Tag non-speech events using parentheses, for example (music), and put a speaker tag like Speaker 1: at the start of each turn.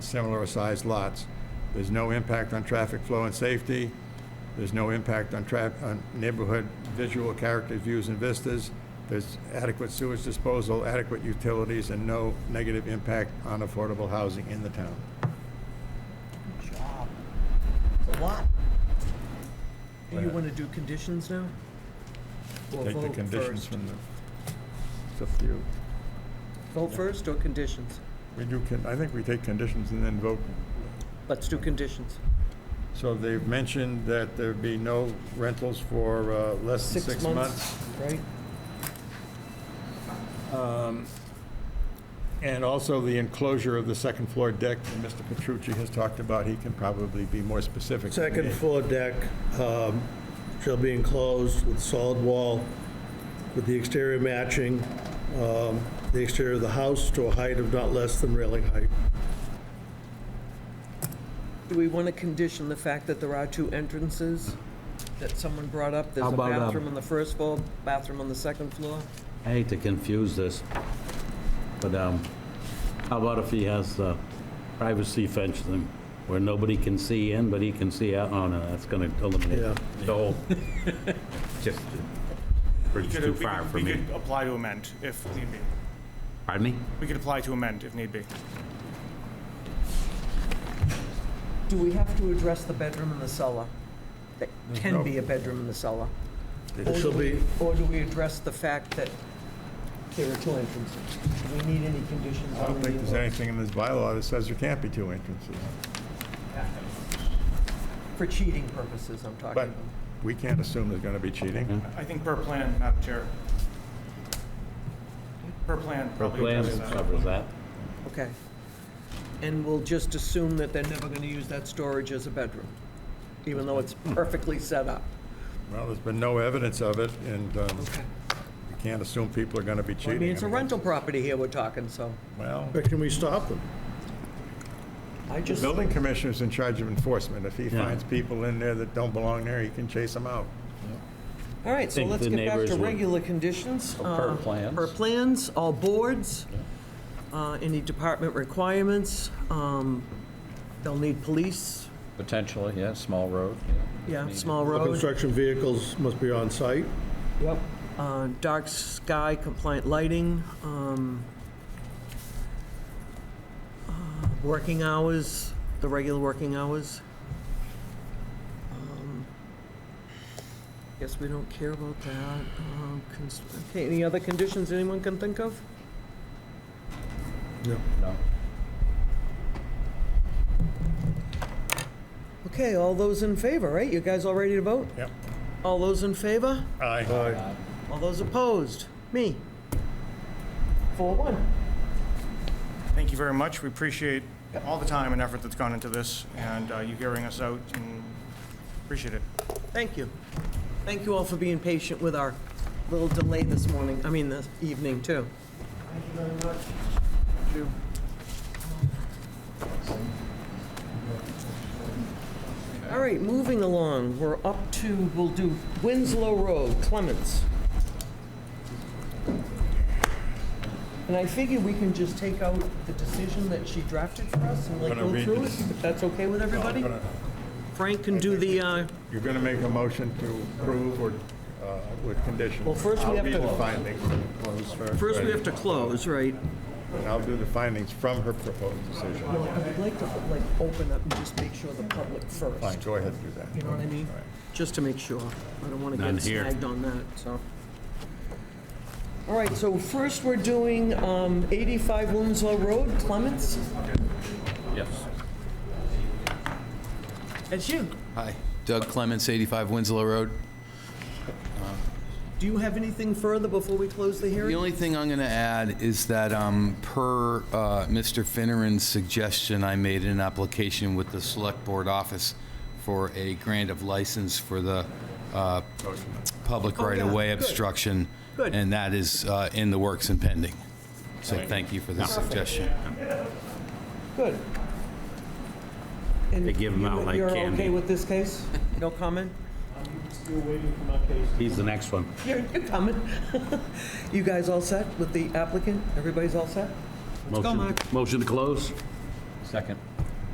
Speaker 1: similar sized lots. There's no impact on traffic flow and safety. There's no impact on tra, on neighborhood visual character views and vistas. There's adequate sewage disposal, adequate utilities, and no negative impact on affordable housing in the town.
Speaker 2: job. It's a lot. Do you want to do conditions now? Or
Speaker 1: Take the
Speaker 2: vote
Speaker 1: conditions
Speaker 2: first?
Speaker 1: from the, it's up to you.
Speaker 2: Vote first or conditions?
Speaker 1: We do, con- I think we take conditions and then vote.
Speaker 2: Let's do conditions.
Speaker 1: So they've mentioned that there'd be no rentals for uh, less than six months.
Speaker 2: Right?
Speaker 1: And also the enclosure of the second floor deck that Mr. Petrucci has talked about, he can probably be more specific. than
Speaker 3: Second
Speaker 1: me.
Speaker 3: floor deck um, shall be enclosed with solid wall with the exterior matching um, the exterior of the house to a height of not less than railing height.
Speaker 2: Do we want to condition the fact that there are two entrances that someone brought up? There's
Speaker 4: How
Speaker 2: a
Speaker 4: about, um,
Speaker 2: bathroom on the first floor, bathroom on the second floor?
Speaker 4: I hate to confuse this, but um, how about if he has uh, privacy fencing where nobody can see in, but he can see out? Oh, no, that's going to eliminate
Speaker 3: Yeah.
Speaker 4: the whole, (laughs) just, uh, bridge
Speaker 5: Could-
Speaker 4: too
Speaker 5: we
Speaker 4: far
Speaker 5: could-
Speaker 4: for
Speaker 5: We
Speaker 4: me.
Speaker 5: could apply to amend if need be.
Speaker 4: Pardon me?
Speaker 5: We could apply to amend if need be.
Speaker 2: Do we have to address the bedroom in the cellar? That can
Speaker 1: no-
Speaker 2: be a bedroom in the cellar?
Speaker 3: It shall be,
Speaker 2: Or do we address the fact that there are two entrances? Do we need any conditions
Speaker 1: I
Speaker 2: on
Speaker 1: don't
Speaker 2: the...
Speaker 1: think there's anything in this bylaw that says there can't be two entrances,
Speaker 2: For cheating purposes, I'm talking
Speaker 1: but
Speaker 2: about.
Speaker 1: we can't assume there's going to be cheating.
Speaker 5: I think per plan, Madam Chair. Per plan
Speaker 4: The
Speaker 5: probably
Speaker 4: plan
Speaker 5: addresses that.
Speaker 4: covers that.
Speaker 2: Okay. And we'll just assume that they're never going to use that storage as a bedroom, even though it's perfectly set up.
Speaker 1: Well, there's been no evidence of it, and um,
Speaker 2: Okay.
Speaker 1: you can't assume people are going to be
Speaker 2: I
Speaker 1: cheating.
Speaker 2: mean, it's a
Speaker 1: mean,
Speaker 2: rental property here we're talking, so
Speaker 1: Well,
Speaker 3: but can we stop them?
Speaker 2: I
Speaker 1: the
Speaker 2: just,
Speaker 1: building commissioner's in charge of enforcement. If he
Speaker 4: Yeah.
Speaker 1: finds people in there that don't belong there, he can chase them out.
Speaker 2: all right, so
Speaker 4: think
Speaker 2: let's
Speaker 4: the
Speaker 2: get back
Speaker 4: neighbors
Speaker 2: to
Speaker 4: would- Oh,
Speaker 2: regular conditions.
Speaker 4: per
Speaker 2: uh,
Speaker 4: plans.
Speaker 2: Per plans, all boards, uh, any department requirements. um, They'll need police,
Speaker 6: Potentially, yeah, small road, yeah.
Speaker 2: yeah,
Speaker 6: Need-
Speaker 2: small
Speaker 3: All
Speaker 2: roads.
Speaker 3: Construction vehicles must be on site.
Speaker 2: Yep. Uh, dark sky compliant lighting, um, uh, working hours, the regular working hours. Um, Guess we don't care about that. Um, cons- Okay, any other conditions anyone can think of?
Speaker 6: No.
Speaker 2: Okay, all those in favor, right? You guys all ready to vote?
Speaker 1: Yep.
Speaker 2: All those in favor?
Speaker 1: Aye.
Speaker 2: All those opposed? Me? Four one.
Speaker 5: Thank you very much. We appreciate all the time and effort that's gone into this and uh, you hearing us out and appreciate it.
Speaker 2: Thank you. Thank you all for being patient with our little delay this morning, I mean, this evening, too. Thank you very much. All right, moving along, we're up to, we'll do Winslow Road, Clements. And I figure we can just take out the decision that she drafted for us and like
Speaker 1: Gonna
Speaker 2: go
Speaker 1: read
Speaker 2: through
Speaker 1: the
Speaker 2: it, if that's okay with everybody? Frank can do the, uh,
Speaker 1: You're going to make a motion to approve or uh, with conditions.
Speaker 2: Well, first we have
Speaker 1: I'll read
Speaker 2: to-
Speaker 1: the findings. Close
Speaker 2: First, we have to close, right?
Speaker 1: And I'll do the findings from her proposed decision.
Speaker 2: Well, I would like to, like, open up and just make sure the public
Speaker 1: Fine,
Speaker 2: first,
Speaker 1: go ahead and do that.
Speaker 2: you know what I mean? Just to make sure. I don't want to
Speaker 4: None
Speaker 2: get
Speaker 4: here.
Speaker 2: snagged on that, so. All right, so first, we're doing um, 85 Winslow Road, Clements.
Speaker 6: Yes.
Speaker 2: That's you.
Speaker 7: Hi, Doug Clements, 85 Winslow Road.
Speaker 2: Do you have anything further before we close the
Speaker 7: The
Speaker 2: hearing?
Speaker 7: only thing I'm going to add is that um, per uh, Mr. Finneran's suggestion, I made an application with the Select Board Office for a grant of license for the uh, public
Speaker 2: Oh, yeah,
Speaker 7: right-of-way
Speaker 2: good.
Speaker 7: obstruction.
Speaker 2: Good.
Speaker 7: And that is uh, in the works and pending. So thank you for the suggestion.
Speaker 2: Good. And
Speaker 4: They give 'em
Speaker 2: you-
Speaker 4: out like
Speaker 2: You're okay
Speaker 4: candy.
Speaker 2: with this case? No comment?
Speaker 4: He's the next one.
Speaker 2: You're you're coming. (laughs) You guys all set with the applicant? Everybody's all set? go,
Speaker 4: Motion-
Speaker 2: Mark.
Speaker 4: Motion to close?
Speaker 6: Second.